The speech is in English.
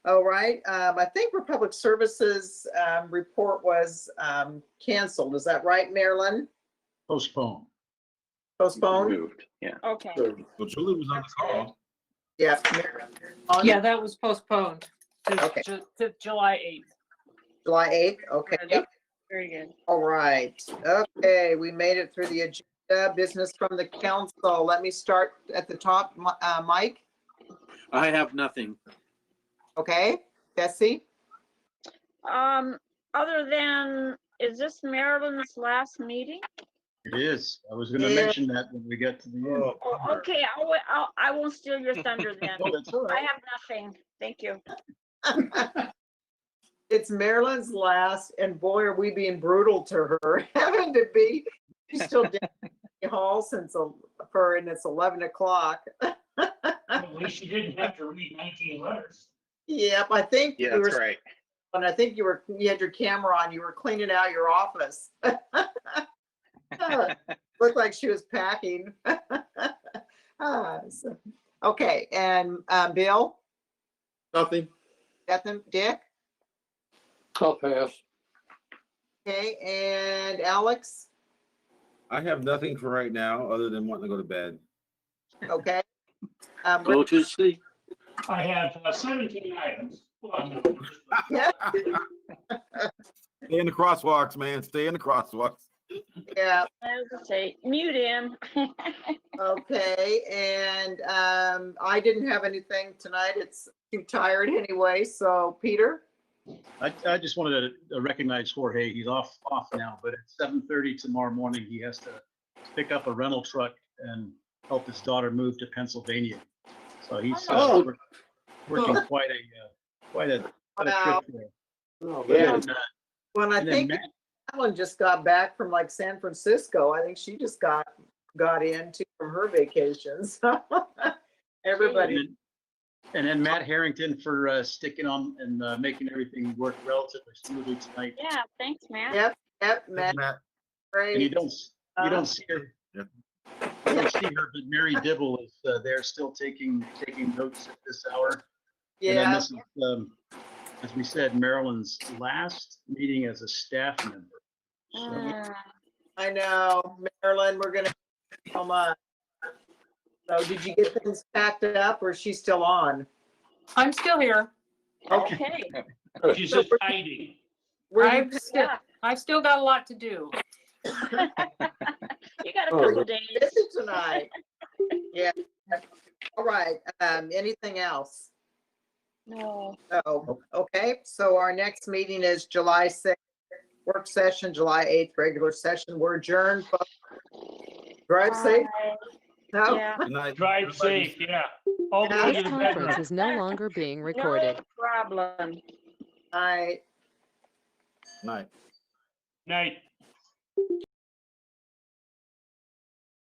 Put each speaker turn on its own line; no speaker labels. All right, um, I think Republic Services, um, report was, um, canceled. Is that right, Marilyn?
Postpone.
Postponed?
Moved, yeah.
Okay,
Well, Julie was on the call.
Yeah. Marilyn.
Yeah, that was postponed
Okay.
to, Ju- to July 8th.
July eighth, okay.
Yep. Very good.
All right, okay, we made it through the agenda, business from the council. Let me start at the top, Mi- uh, Mike,
I have nothing.
okay? Bessie?
um, other than, is this Marilyn's last meeting?
It is. I was gonna
Yeah.
mention that when we get to the end.
Oh, Okay, I will, I'll- I won't steal your thunder then.
Oh, that's all
I
right.
have nothing. Thank you.
It's Marilyn's last, and boy, are we being brutal to her, having to be, she's still down in the hall since, el- for, and it's 11 o'clock.
At least you didn't have to read nineteen letters.
Yep, I think
Yeah,
you
that's
were,
right.
and I think you were, you had your camera on, you were cleaning out your office. Ah, Looked like she was packing. Ah, so- Okay, and um, Bill,
Nothing.
Bethany, Dick,
I'll pass.
okay, and Alex,
I have nothing for right now, other than wanting to go to bed.
okay? Um,
Oh.
Go to sleep.
I have uh, seventeen items. Well, no,
Stay in the crosswalks, man. Stay in the crosswalks.
Yeah,
I was gonna say, mute him.
Okay, and um, I didn't have anything tonight. It's too tired anyway, so Peter?
I, I just wanted to uh, recognize Jorge. He's off, off now, but at seven thirty tomorrow morning, he has to pick up a rental truck and help his daughter move to Pennsylvania. So he's uh,
Oh.
wor- working quite a, uh, quite a, quite a
Wow.
trip there.
Oh,
Yeah.
And, uh,
When I
and then
think
Matt,
Ellen just got back from like San Francisco, I think she just got, got in too from her vacation, so.
and
Everybody,
then- and then Matt Harrington for uh, sticking on and uh, making everything work relatively smoothly tonight.
Yeah, thanks, man.
yep, yep, Matt,
Matt,
And you
great.
don't, s-
Uh,
you don't see her.
Yeah.
You don't see her, but Mary Dibble is uh, there still taking, taking notes at this hour. And then
Yeah,
this is, um, As we said, Marilyn's last meeting as a staff member. So
Mm,
I know. Marilyn, we're gonna, come on. So did you get things packed up or is she still on?
I'm still here.
Okay,
She's just hiding.
Were you-
I've still, I've still got a lot to do.
you got a
Oh,
couple days.
busy tonight. Yeah. All right, um, anything else?
No,
Oh, okay, so our next meeting is July sixth, work session, July eighth, regular session. We're adjourned. folks. Drive safe.
bye.
No,
Uh, Yeah,
good night.
Drive
Everybody-
safe, yeah. All the way to
This
the bedroom.
conference is no longer being recorded.
no problem.
I.
Night.
Night.